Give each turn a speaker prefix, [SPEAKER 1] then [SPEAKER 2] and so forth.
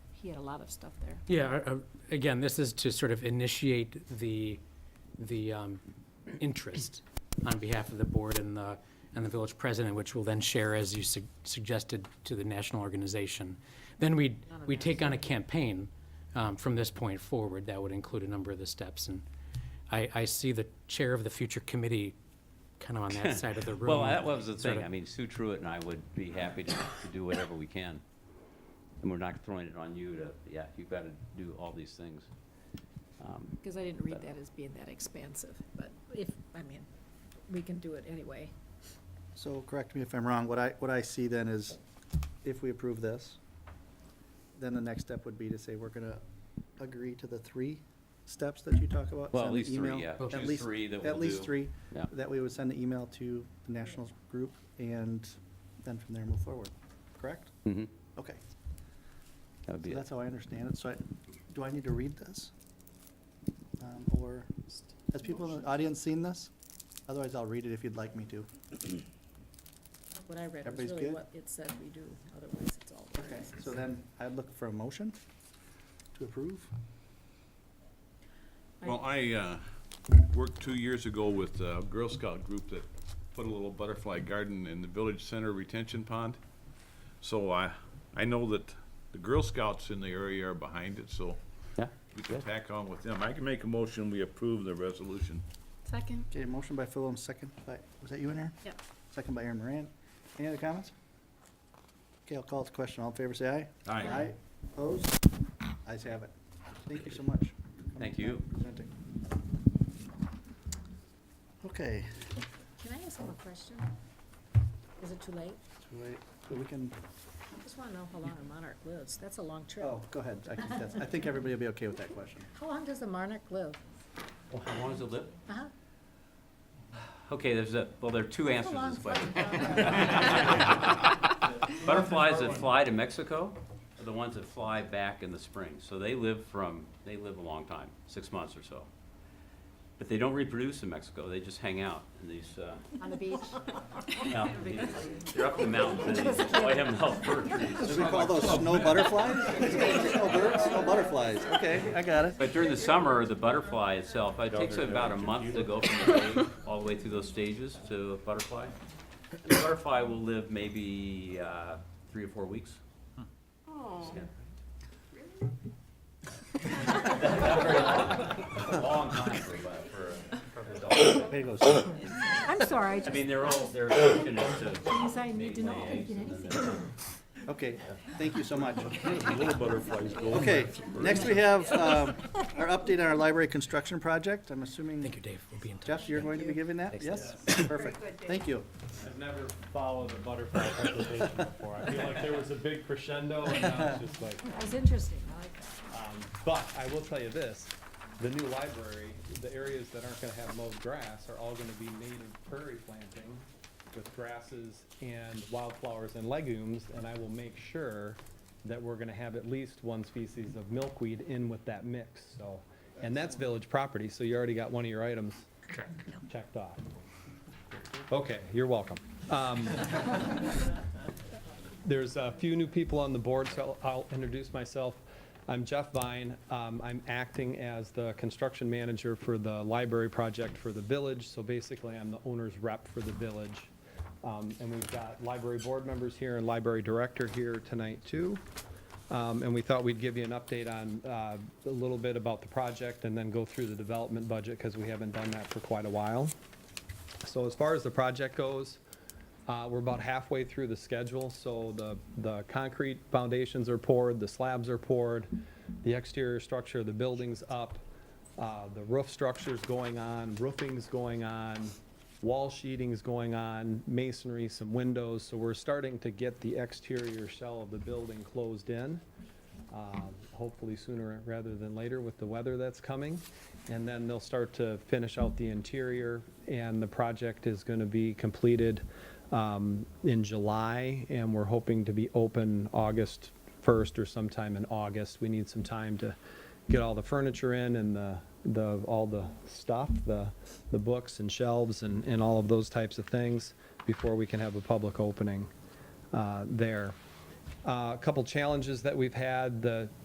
[SPEAKER 1] he had a lot of stuff there.
[SPEAKER 2] Yeah, uh, uh, again, this is to sort of initiate the, the um, interest on behalf of the board and the, and the village president, which will then share, as you sug- suggested, to the national organization. Then we, we take on a campaign um, from this point forward that would include a number of the steps. And I, I see the chair of the future committee kind of on that side of the room.
[SPEAKER 3] Well, that was the
[SPEAKER 2] sort
[SPEAKER 3] thing.
[SPEAKER 2] of-
[SPEAKER 3] I mean, Sue Truitt and I would be happy to to do whatever we can. And we're not throwing it on you to, yeah, you've got to do all these things. Um,
[SPEAKER 1] Because I didn't read that as being that expansive, but if, I mean, we can do it anyway.
[SPEAKER 4] So, correct me if I'm wrong, what I, what I see then is, if we approve this, then the next step would be to say, we're gonna agree to the three steps that you talk about?
[SPEAKER 3] Well, at
[SPEAKER 4] send the
[SPEAKER 3] least three,
[SPEAKER 4] email-
[SPEAKER 3] yeah.
[SPEAKER 2] Okay.
[SPEAKER 4] At
[SPEAKER 3] Choose
[SPEAKER 4] least,
[SPEAKER 3] three that
[SPEAKER 4] at
[SPEAKER 3] we'll
[SPEAKER 4] least
[SPEAKER 3] do.
[SPEAKER 4] three,
[SPEAKER 3] Yeah.
[SPEAKER 4] that we would send the email to the nationals group, and then from there move forward, correct?
[SPEAKER 3] mhm.
[SPEAKER 4] Okay,
[SPEAKER 3] That would
[SPEAKER 4] so
[SPEAKER 3] be it.
[SPEAKER 4] that's how I understand it, so I, do I need to read this? Um, Or, has people in the audience seen this? Otherwise, I'll read it if you'd like me to.
[SPEAKER 1] What I read was
[SPEAKER 4] Everybody's
[SPEAKER 1] really
[SPEAKER 4] good?
[SPEAKER 1] what it said we do, otherwise it's all.
[SPEAKER 4] Okay,
[SPEAKER 1] words.
[SPEAKER 4] so then I'd look for a motion to approve.
[SPEAKER 5] Well, I uh, worked two years ago with a Girl Scout group that put a little butterfly garden in the village center retention pond. So I, I know that the Girl Scouts in the area are behind it, so
[SPEAKER 3] Yeah,
[SPEAKER 5] we can
[SPEAKER 3] good.
[SPEAKER 5] tack on with them. I can make a motion, we approve the resolution.
[SPEAKER 1] Second?
[SPEAKER 4] Okay, motion by Phil and second by, was that you in there?
[SPEAKER 1] Yep.
[SPEAKER 4] Second by Aaron Moran. Any other comments? Okay, I'll call it to question. All in favor, say aye.
[SPEAKER 5] Aye.
[SPEAKER 4] Aye, opposed? Ayes have it. Thank you so much. for coming
[SPEAKER 3] Thank
[SPEAKER 4] tonight
[SPEAKER 3] you.
[SPEAKER 4] and presenting. Okay,
[SPEAKER 1] Can I ask him a question? Is it too late?
[SPEAKER 4] so wait, so we can,
[SPEAKER 1] I just want to know how long a monarch lives. That's a long trip.
[SPEAKER 4] oh, go ahead. I think that's, I think everybody will be okay with that question.
[SPEAKER 1] How long does a monarch live?
[SPEAKER 3] How long is it live?
[SPEAKER 1] Uh-huh.
[SPEAKER 3] Okay, there's a, well, there are two
[SPEAKER 1] That's a
[SPEAKER 3] answers to
[SPEAKER 1] long
[SPEAKER 3] this question.
[SPEAKER 1] flight.
[SPEAKER 3] Butterflies that fly to Mexico are the ones that fly back in the spring. So they live from, they live a long time, six months or so. But they don't reproduce in Mexico. They just hang out in these, uh,
[SPEAKER 1] On the beach?
[SPEAKER 3] No, They're up in the mountains, and they enjoy them health fir trees.
[SPEAKER 4] we call those snow butterflies? Snow birds, snow butterflies. Okay, I got it.
[SPEAKER 3] But during the summer, the butterfly itself, it takes about a month to go from the egg all the way through those stages to a butterfly. The butterfly will live maybe uh, three or four weeks. Yeah. It's a Long time for, a- for a- for an adult.
[SPEAKER 4] Way to go.
[SPEAKER 1] I'm sorry, I
[SPEAKER 3] I
[SPEAKER 1] just,
[SPEAKER 3] mean, they're all, they're fortunate
[SPEAKER 1] Things
[SPEAKER 3] to.
[SPEAKER 1] I need to
[SPEAKER 3] they
[SPEAKER 1] know.
[SPEAKER 3] lay eggs and then they're-
[SPEAKER 4] Okay, thank you so much.
[SPEAKER 5] Little butterflies go.
[SPEAKER 4] Okay, next we have um, our update on our library construction project. I'm assuming,
[SPEAKER 2] Thank you, Dave. We'll be in touch.
[SPEAKER 4] Jeff, you're going to be giving that? Yes? Perfect. Thank you.
[SPEAKER 6] I've never followed a butterfly presentation before. I feel like there was a big crescendo and now it's just like,
[SPEAKER 1] it was interesting. I like that.
[SPEAKER 6] um, but I will tell you this, the new library, the areas that aren't gonna have mowed grass are all gonna be native prairie planting with grasses and wildflowers and legumes, and I will make sure that we're gonna have at least one species of milkweed in with that mix, so. And that's village property, so you already got one of your items checked off. Okay, you're welcome. Um, there's a few new people on the board, so I'll I'll introduce myself. I'm Jeff Vine. Um, I'm acting as the construction manager for the library project for the village. So basically, I'm the owner's rep for the village. Um, And we've got library board members here and library director here tonight, too. Um, And we thought we'd give you an update on uh, a little bit about the project and then go through the development budget because we haven't done that for quite a while. So as far as the project goes, uh, We're about halfway through the schedule, so the, the concrete foundations are poured, the slabs are poured, the exterior structure of the building's up, uh, the roof structure's going on, roofing's going on, wall sheeting's going on, masonry, some windows, so we're starting to get the exterior shell of the building closed in um, hopefully sooner rather than later with the weather that's coming. And then they'll start to finish out the interior, and the project is going to be completed um, in July, and we're hoping to be open August 1st or sometime in August. We need some time to get all the furniture in and the, the, all the stuff, the, the books and shelves and, and all of those types of things before we can have a public opening uh, there. Uh, A couple challenges that we've had, the